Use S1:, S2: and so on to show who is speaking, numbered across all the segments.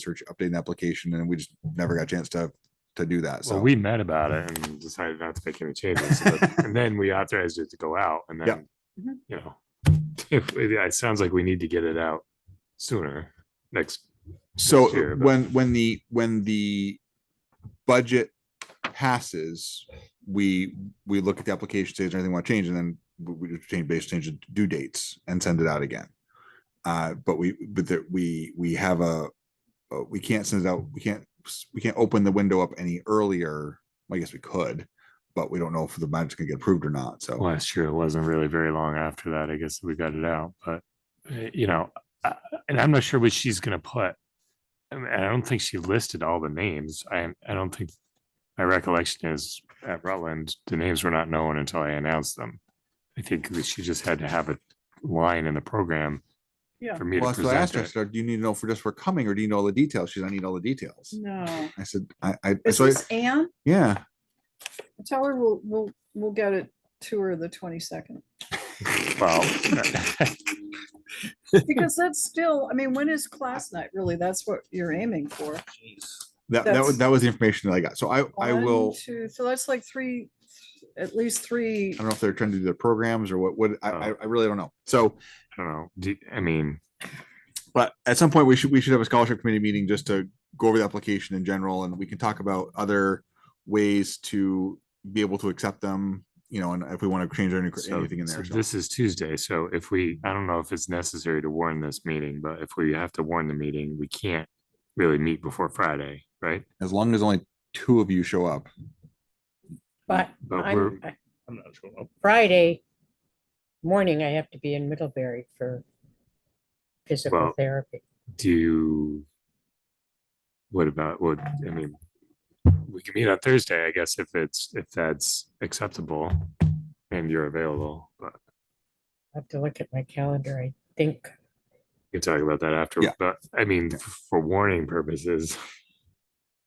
S1: search update an application and we just never got a chance to, to do that. So
S2: So we met about it and decided not to make any changes. so that- And then we authorized it to go out and
S1: Yeah.
S2: then, you know. If, yeah, it sounds like we need to get it out sooner next.
S1: So
S2: next year, but-
S1: when, when the, when the budget passes, we, we look at the application stage, anything want to change, and then we we just change, base change the due dates and send it out again. Uh, but we, but that we, we have a, uh, we can't send it out, we can't, we can't open the window up any earlier. I guess we could, but we don't know if the budget's gonna get approved or not, so.
S2: Last year, it wasn't really very long after that. I guess we got it out, but uh, you know, I- and I'm not sure what she's gonna put. I mean, I don't think she listed all the names. I, I don't think, my recollection is at Rutland, the names were not known until I announced them. I think that she just had to have a line in the program.
S3: Yeah.
S2: For me
S1: Well,
S2: to
S1: so I asked
S2: present
S1: her, I
S2: it.
S1: said, do you need to know for just for coming or do you know all the details? She's, I need all the details.
S3: No.
S1: I said, I, I,
S3: Mm. Is
S1: so, I-
S3: this Anne?
S1: yeah.
S3: Tell her we'll, we'll, we'll get it to her the twenty-second.
S2: Well,
S3: Because that's still, I mean, when is class night? Really, that's what you're aiming for.
S1: That, that was,
S3: That's-
S1: that was the information that I got. So I, I
S3: One,
S1: will,
S3: Two, so that's like three, at least three.
S1: I don't know if they're trying to do their programs or what, what, I, I
S2: Oh.
S1: I really don't know. So,
S2: I don't know. Do, I mean,
S1: but at some point we should, we should have a scholarship committee meeting just to go over the application in general and we can talk about other ways to be able to accept them, you know, and if we want to change any-
S2: so,
S1: anything in
S2: so
S1: there. so.
S2: this is Tuesday. So if we, I don't know if it's necessary to warn this meeting, but if we have to warn the meeting, we can't really meet before Friday, right?
S1: As long as only two of you show up.
S4: But
S2: But we're,
S4: I'm,
S5: I'm not sure.
S4: Friday morning, I have to be in Middlebury for physical
S2: Well-
S4: therapy.
S2: do you- what about, what, I mean, we can meet on Thursday, I guess, if it's, if that's acceptable and you're available, but
S4: I have to look at my calendar, I think.
S2: we can talk about that after.
S1: Yeah.
S2: But I mean,
S1: Yeah.
S2: f- for warning purposes,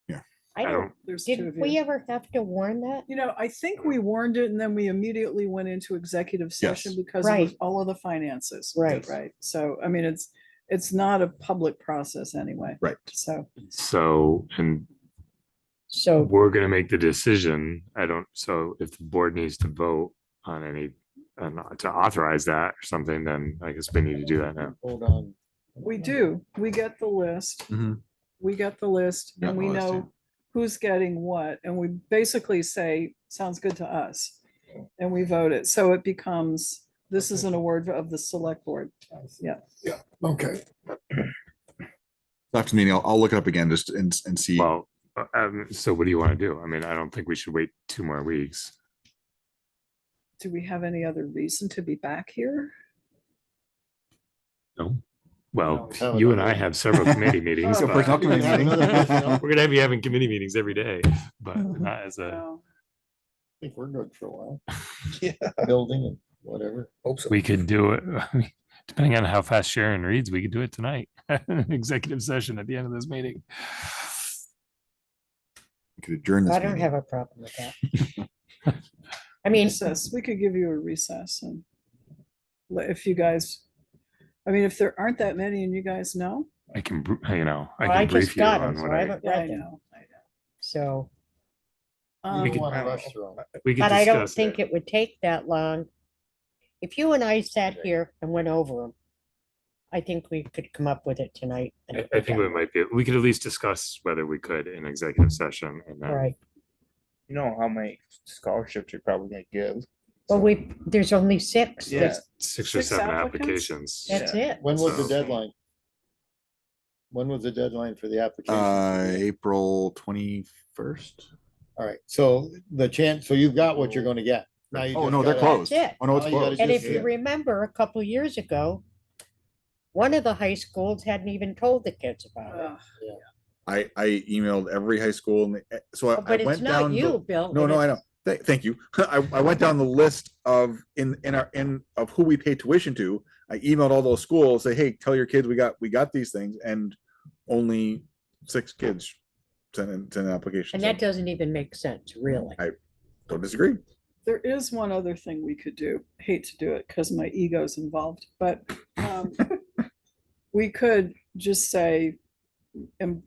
S4: I
S2: I
S4: don't,
S2: don't,
S3: There's two
S4: did
S3: of
S4: we
S3: you.
S4: ever have to warn that?
S3: You know, I think we warned it and then we immediately went into executive session because of
S4: Right.
S3: all of the finances.
S4: Right.
S3: Right. So, I mean, it's, it's not a public process anyway.
S1: Right.
S3: So,
S2: so, and
S4: So
S2: we're gonna make the decision. I don't, so if the board needs to vote on any, on to authorize that or something, then I guess we need to do that now.
S5: Hold on.
S3: we do, we get the list.
S1: Mhm.
S3: we get the list
S1: Got
S3: and
S1: the
S3: we
S1: list, yeah.
S3: know who's getting what, and we basically say, sounds good to us. And we vote it, so it becomes, this is an award of the select board. Yeah,
S5: Okay.
S1: After the meeting, I'll, I'll look it up again just and, and see.
S2: Well, uh, um, so what do you want to do? I mean, I don't think we should wait two more weeks.
S3: do we have any other reason to be back here?
S2: No. Well,
S5: we have
S2: you and I
S5: another-
S2: have several committee meetings.
S1: So
S2: but
S1: personnel
S5: You can
S1: committee
S5: have
S1: meeting.
S5: another personnel-
S2: We're gonna have you having committee meetings every day, but
S4: Mhm.
S2: not as a,
S3: No.
S5: I think we're good for a while. Yeah. Building and whatever. Hope so.
S2: we could do it. Depending on how fast Sharon reads, we could do it tonight. Executive session at the end of this meeting.
S1: We Could adjourn this
S4: I don't
S1: meeting.
S4: have a problem with that. I mean,
S3: Recess, we could give you a recess and let- if you guys, I mean, if there aren't that many and you guys know.
S2: I can, br- you know, I
S4: I
S2: can
S4: just
S2: brief you
S4: got them,
S2: on
S4: so
S2: what
S4: I
S2: I,
S4: haven't
S3: Yeah, I
S4: read them.
S3: know.
S4: So,
S3: I
S2: We
S3: know.
S2: could-
S3: Um,
S5: want to rush through 'em.
S2: we could
S4: but I don't
S2: discuss
S4: think
S2: it.
S4: it would take that long. If you and I sat here and went over them, I think we could come up with it tonight. and
S2: I,
S4: it
S2: I
S4: would
S2: think
S4: be
S2: we might be, we could at least discuss whether we could in executive session and
S4: done. All
S2: then
S4: right.
S5: You know how many scholarships you're probably gonna give.
S4: Well, we, there's only six.
S5: Yeah.
S4: There's-
S2: six or
S3: Six
S2: seven
S3: applicants?
S2: applications.
S4: That's
S5: Yeah.
S4: it.
S5: When was the
S2: So-
S5: deadline? When was the deadline for the application?
S1: Uh, April twenty-first?
S5: All right, so the chance, so you've got what you're gonna get. Now you
S1: Oh,
S5: just
S1: no, they're
S5: gotta-
S1: closed.
S4: it.
S1: Oh, no, it's
S5: All you gotta
S1: closed.
S4: And
S5: Just-
S4: if you
S5: yeah.
S4: remember, a couple years ago, one of the high schools hadn't even told the kids about it.
S3: uh,
S1: I, I emailed every high school and eh, so I-
S4: Oh, But
S1: I
S4: it's
S1: went down.
S4: not
S1: the-
S4: you, Bill.
S1: No,
S4: and
S1: no, I know.
S4: it's-
S1: Th- Thank you. I, I went down the list of in, in our, in of who we pay tuition to. I emailed all those schools, say, hey, tell your kids we got, we got these things and only six kids sent in, sent an application.
S4: And
S1: so
S4: that doesn't even make sense, really.
S1: Don't disagree.
S3: There is one other thing we could do. Hate to do it because my ego's involved, but um, we could just say and